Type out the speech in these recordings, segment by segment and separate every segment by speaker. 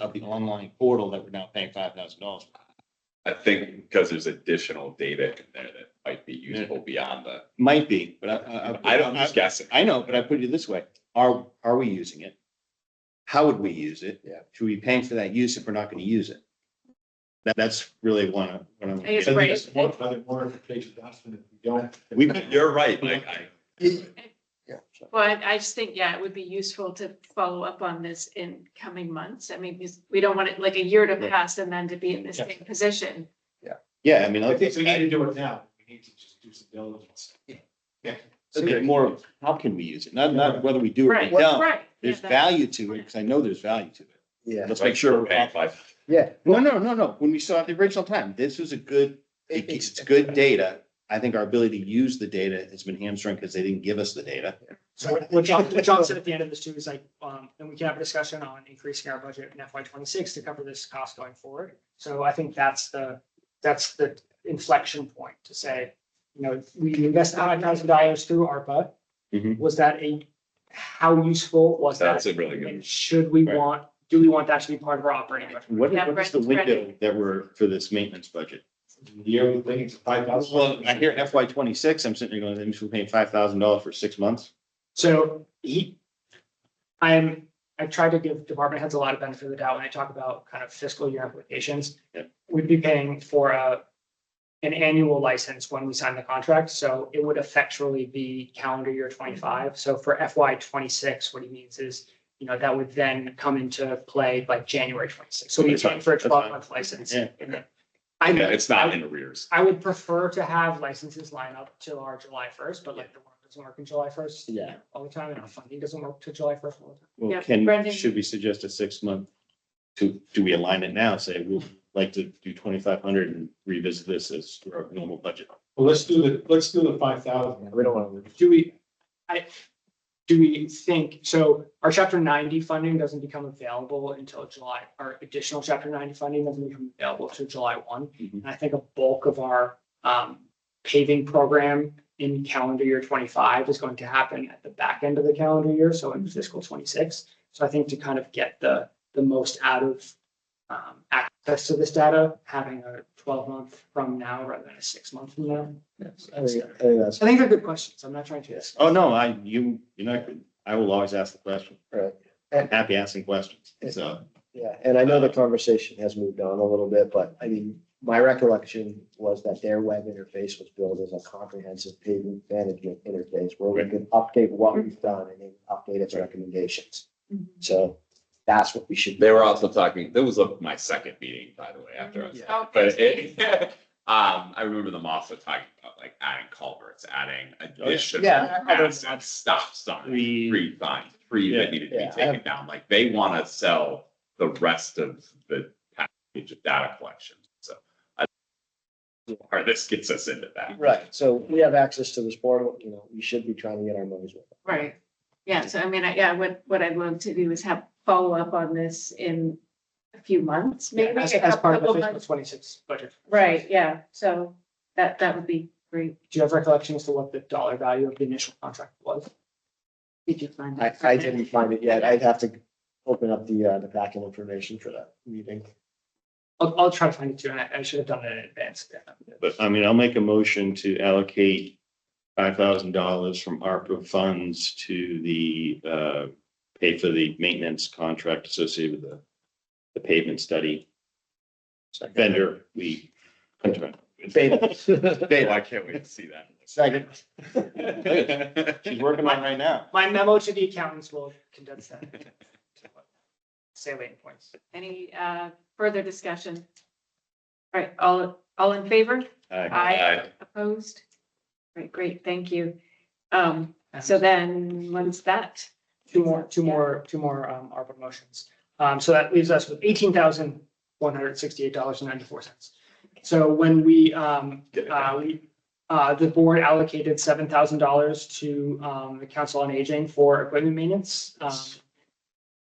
Speaker 1: of the online portal that we're now paying five thousand dollars.
Speaker 2: I think because there's additional data in there that might be useful beyond the,
Speaker 1: Might be, but I, I.
Speaker 2: I don't, I'm just guessing.
Speaker 1: I know, but I put it this way, are, are we using it? How would we use it?
Speaker 2: Yeah.
Speaker 1: Should we be paying for that use if we're not gonna use it? That, that's really one of, what I'm.
Speaker 3: I guess,
Speaker 1: And
Speaker 3: right.
Speaker 1: this-
Speaker 4: One other clarification, Dustin, if you don't.
Speaker 1: We-
Speaker 2: You're right, Mike. I-
Speaker 3: But I just think, yeah, it would be useful to follow up on this in coming months. I mean, because we don't want it like a year to
Speaker 1: Right.
Speaker 3: pass and then to be in the same position.
Speaker 1: Yeah, I mean,
Speaker 4: I
Speaker 1: I
Speaker 4: think we need to
Speaker 1: think,
Speaker 4: do it now. We need to just do some diligence.
Speaker 1: it's more of, how can we use it? Not, not whether we do it
Speaker 3: Right,
Speaker 1: right
Speaker 5: Oh,
Speaker 1: now.
Speaker 3: right. Yeah,
Speaker 1: There's
Speaker 3: that-
Speaker 1: value to it, because I know there's value to it.
Speaker 6: Yeah,
Speaker 1: Let's make sure.
Speaker 2: We're
Speaker 1: we're
Speaker 2: paying
Speaker 1: off-
Speaker 2: five.
Speaker 6: yeah.
Speaker 1: No, no, no, no. When we saw it the original time, this was a good, it's it's good data. I think our ability to use the data has been hamstrung because they didn't give us the data.
Speaker 5: So what- what John, what John said at the end of this too is like, um, and we can have a discussion on increasing our budget in FY twenty-six to cover this cost going forward. So I think that's the, that's the inflection point to say, you know, we invest nine thousand dollars through ARPA.
Speaker 1: Mhm.
Speaker 5: Was that a, how useful was that?
Speaker 2: Mm-hmm. That's a really good.
Speaker 5: And should we
Speaker 1: Right.
Speaker 5: want, do we want that to be part of our operating budget?
Speaker 1: What
Speaker 3: Yeah,
Speaker 1: what is the
Speaker 3: Brett's ready.
Speaker 1: window that we're for this maintenance budget?
Speaker 4: The year we think it's five thousand.
Speaker 1: Well, I hear FY twenty-six, I'm sitting there going, that means we're paying five thousand dollars for six months.
Speaker 5: So he, I'm, I try to give department heads a lot of benefit of the doubt when I talk about kind of fiscal year implications.
Speaker 1: Yep.
Speaker 5: We'd be paying for a, an annual license when we sign the contract, so it would effectually be calendar year twenty-five. So for FY twenty-six, what he means is, you know, that would then come into play like January twenty-six. So we're
Speaker 1: That's
Speaker 5: paying
Speaker 1: fine,
Speaker 5: for a
Speaker 1: that's fine.
Speaker 5: twelve-month license.
Speaker 1: Yeah.
Speaker 5: And then-
Speaker 2: Yeah,
Speaker 5: I,
Speaker 2: it's not in arrears.
Speaker 5: I would prefer to have licenses line up till our July first, but like the work doesn't work in July first.
Speaker 6: Yeah.
Speaker 5: All the time, and our funding doesn't work till July first all the time.
Speaker 1: Well,
Speaker 3: Yeah,
Speaker 1: can,
Speaker 3: Brendan.
Speaker 1: should we suggest a six-month? To, do we align it now? Say, we'd like to do twenty-five hundred and revisit this as our normal budget.
Speaker 4: Well, let's do the, let's do the five thousand.
Speaker 6: We don't want to.
Speaker 5: Do we, I, do we think, so our chapter ninety funding doesn't become available until July, our additional chapter ninety funding doesn't become available till July one.
Speaker 1: Mhm.
Speaker 5: And I think a bulk of our um paving program in calendar year twenty-five is going to happen at the back end of the calendar year, so in fiscal twenty-six. So I think to kind of get the the most out of um access to this data, having a twelve-month from now rather than a six-month from now.
Speaker 6: I think I think that's
Speaker 5: I think they're good questions. I'm not trying to.
Speaker 1: Oh, no, I, you, you know, I will always ask the question.
Speaker 6: right.
Speaker 1: I'm happy asking questions, so.
Speaker 6: Yeah, and I know the conversation has moved on a little bit, but I mean, my recollection was that their web interface was built as a comprehensive pavement management interface where we
Speaker 1: Right.
Speaker 6: could update what we've done and then update its recommendations.
Speaker 3: Mhm.
Speaker 6: So that's what we should.
Speaker 2: They were also talking, that was uh, my second meeting, by the way, after I was.
Speaker 3: Oh,
Speaker 2: But
Speaker 3: thanks,
Speaker 2: it,
Speaker 3: Dave.
Speaker 2: um, I remember them also talking about like adding culverts, adding additional
Speaker 6: Oh, Yeah, I- I don't-
Speaker 2: massive stop signs,
Speaker 1: Three-
Speaker 2: three signs, three that needed to
Speaker 6: Yeah,
Speaker 2: be
Speaker 6: I
Speaker 2: taken down. Like they want to sell the rest of the package of data collection. So I, or this gets us into that.
Speaker 6: Right, so we have access to this portal, you know, we should be trying to get our money's worth.
Speaker 3: Right. Yeah, so I mean, I- yeah, what, what I'd love to do is have follow up on this in a few months, maybe.
Speaker 5: As,
Speaker 3: a
Speaker 5: as part of
Speaker 3: couple
Speaker 5: the fiscal
Speaker 3: months.
Speaker 5: twenty-six budget.
Speaker 3: Right, yeah, so that, that would be great.
Speaker 5: Do you have recollection as to what the dollar value of the initial contract was?
Speaker 3: Did you find
Speaker 6: I,
Speaker 3: that?
Speaker 6: I didn't find it yet. I'd have to open up the, uh, the packet information for that meeting.
Speaker 5: I'll, I'll try to find it too, and I, I should have done it in advance.
Speaker 1: But I mean, I'll make a motion to allocate five thousand dollars from ARPA funds to the, uh, pay for the maintenance contract associated with the, the pavement study. Vendor, we.
Speaker 6: Beta.
Speaker 2: Well, I can't wait to see that.
Speaker 6: Second.
Speaker 1: She's working on it right now.
Speaker 5: My memo to the accountants will condense that. Say waiting points.
Speaker 3: Any uh, further discussion? All right, all, all in favor?
Speaker 1: Aye.
Speaker 3: Aye. Opposed? Right, great, thank you. Um, so then, when's that?
Speaker 5: Two more, two more, two more um ARPA motions. Um, so that leaves us with eighteen thousand one hundred sixty-eight dollars and ninety-four cents. So when we um, uh, we, uh, the board allocated seven thousand dollars to um the Council on Aging for equipment maintenance. um,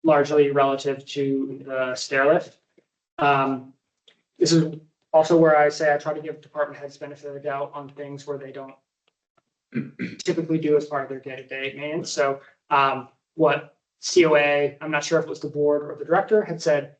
Speaker 5: Largely relative to the stair lift. Um, this is also where I say I try to give department heads benefit of the doubt on things where they don't typically do as part of their day-to-day maintenance. So um, what COA, I'm not sure if it was the board or the director, had said,